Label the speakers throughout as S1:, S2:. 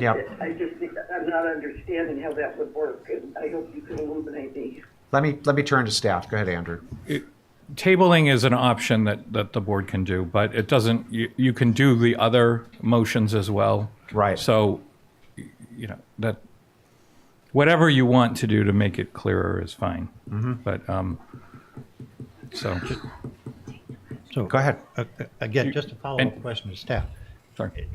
S1: Yep.
S2: I just, think- I'm not understanding how that would work, and I hope you can illuminate me.
S1: Let me, let me turn to staff. Go ahead, Andrew.
S3: Tabling is an option that, that the board can do, but it doesn't, you, you can do the other motions as well.
S1: Right.
S3: So, y- you know, that, whatever you want to do to make it clearer is fine. But, um, so,
S4: So,
S1: Go ahead.
S4: uh, again, just a follow-up
S3: and-
S4: question to staff.
S3: sorry.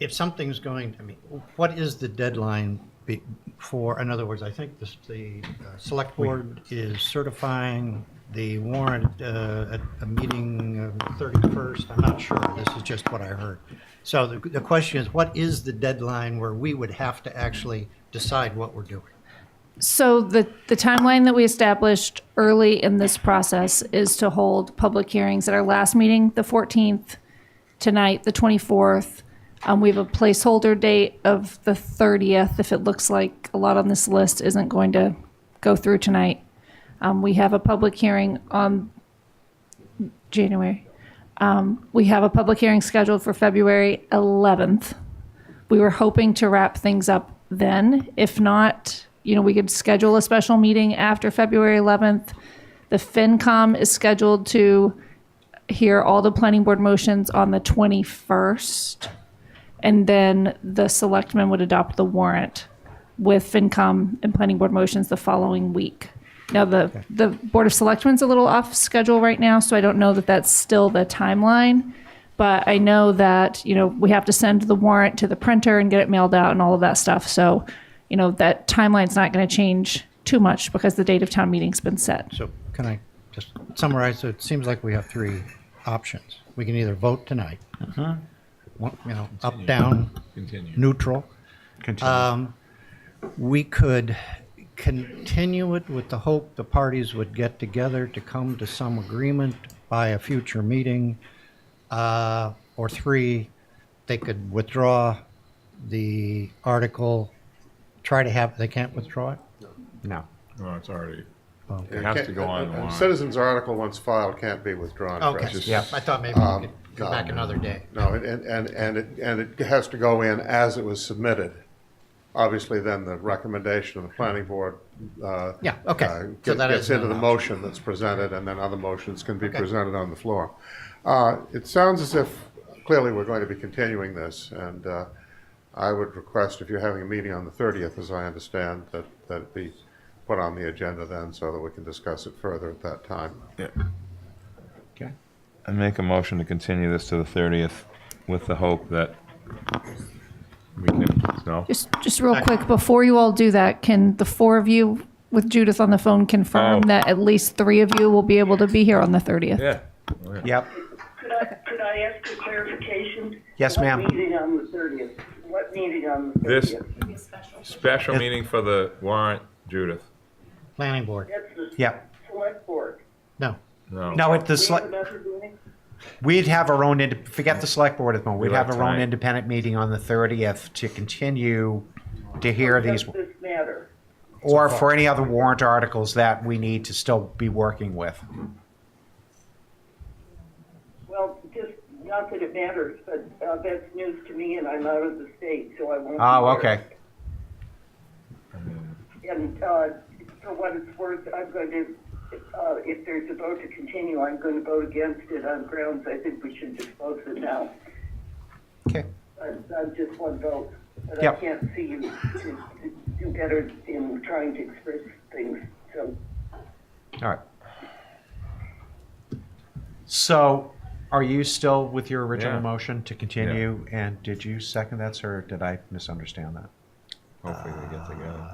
S4: If something's going, I mean, what is the deadline be- for, in other words, I think this, the uh, select board is certifying the warrant uh, at a meeting of 31st, I'm not sure, this is just what I heard. So the, the question is, what is the deadline where we would have to actually decide what we're doing?
S5: So the, the timeline that we established early in this process is to hold public hearings at our last meeting, the 14th, tonight, the 24th. Um, we have a placeholder date of the 30th, if it looks like a lot on this list isn't going to go through tonight. Um, we have a public hearing on January. Um, we have a public hearing scheduled for February 11th. We were hoping to wrap things up then. If not, you know, we could schedule a special meeting after February 11th. The FinCom is scheduled to hear all the planning board motions on the 21st. And then the selectmen would adopt the warrant with FinCom and planning board motions the following week. Now, the, the Board of Selectmen's a little off schedule right now, so I don't know that that's still the timeline. But I know that, you know, we have to send the warrant to the printer and get it mailed out and all of that stuff. So, you know, that timeline's not going to change too much because the date of town meeting's been set.
S4: So can I just summarize? So it seems like we have three options. We can either vote tonight, one- you know, up, down, neutral. Um, We could continue it with the hope the parties would get together to come to some agreement by a future meeting. Uh, Or three, they could withdraw the article, try to have, they can't withdraw it?
S1: No.
S6: No, it's already,
S4: Okay.
S6: it has to go
S7: Can't- a- a
S6: online.
S7: Citizen's article once filed can't be withdrawn.
S4: Okay,
S7: Precious. Um,
S1: Yeah.
S4: I thought maybe we could go back another day.
S7: No, and, and- and, and it, and it has to go in as it was submitted. Obviously, then the recommendation of the planning board. uh,
S4: Yeah, okay.
S7: uh,
S4: So
S7: get-
S4: that
S7: Gets
S4: is an
S7: into the
S4: option.
S7: motion that's presented, and then other motions can be presented on the floor. Uh, It sounds as if, clearly, we're going to be continuing this, and uh, I would request, if you're having a meeting on the 30th, as I understand, that, that it be put on the agenda then, so that we can discuss it further at that time.
S6: I make a motion to continue this to the thirtieth with the hope that we can, no?
S5: Just, just real quick, before you all do that, can the four of you with Judith on the phone confirm
S6: Oh.
S5: that at least three of you will be able to be here on the 30th?
S6: Yeah.
S1: Yep.
S2: Could I, could I ask for clarification?
S1: Yes, ma'am.
S2: What meeting on the thirtieth? What meeting on the
S6: This
S2: thirtieth?
S6: special meeting for the warrant, Judith.
S4: Planning board,
S2: That's the
S1: Yep.
S2: select board.
S4: no.
S6: No,
S1: No, at the,
S2: We
S1: sele-
S2: have another meeting?
S1: we'd have our own, inde- forget the select board at the moment. We'd
S6: Do it
S1: have our own
S6: tonight.
S1: independent meeting on the 30th to continue to hear these,
S2: Does this matter?
S1: or for any other warrant articles that we need to still be working with.
S2: Well, just, not that it matters, but uh, that's news to me, and I'm out of the state, so I won't. be
S1: Oh,
S2: there.
S1: okay.
S2: And uh, for what it's worth, I'm going to, uh, if there's a vote to continue, I'm going to vote against it on grounds I think we should dispose it now.
S1: Okay.
S2: I'm, I'm just one vote, but I
S1: Yep.
S2: can't see you to to do better in trying to express things, so.
S1: All right. So are you still with your original
S6: Yeah.
S1: motion to continue? And did you second that, sir? Or did I misunderstand that?
S6: hopefully we get together.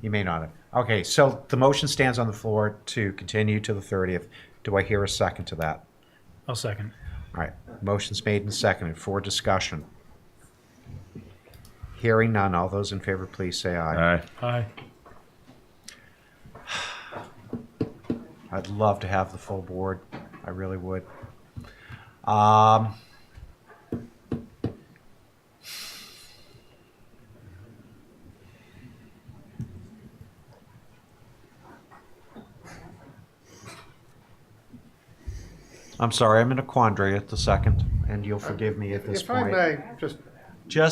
S1: You may not have. Okay, so the motion stands on the floor to continue to the 30th. Do I hear a second to that?
S8: I'll second.
S1: All right, motion's made and seconded for discussion. Hearing none, all those in favor, please say
S6: All
S1: aye.
S6: right,
S8: Aye.
S1: I'd love to have the full board, I really would. Um, I'm sorry, I'm in a quandary at the second, and you'll forgive me at this
S7: If I
S1: point.
S7: may, just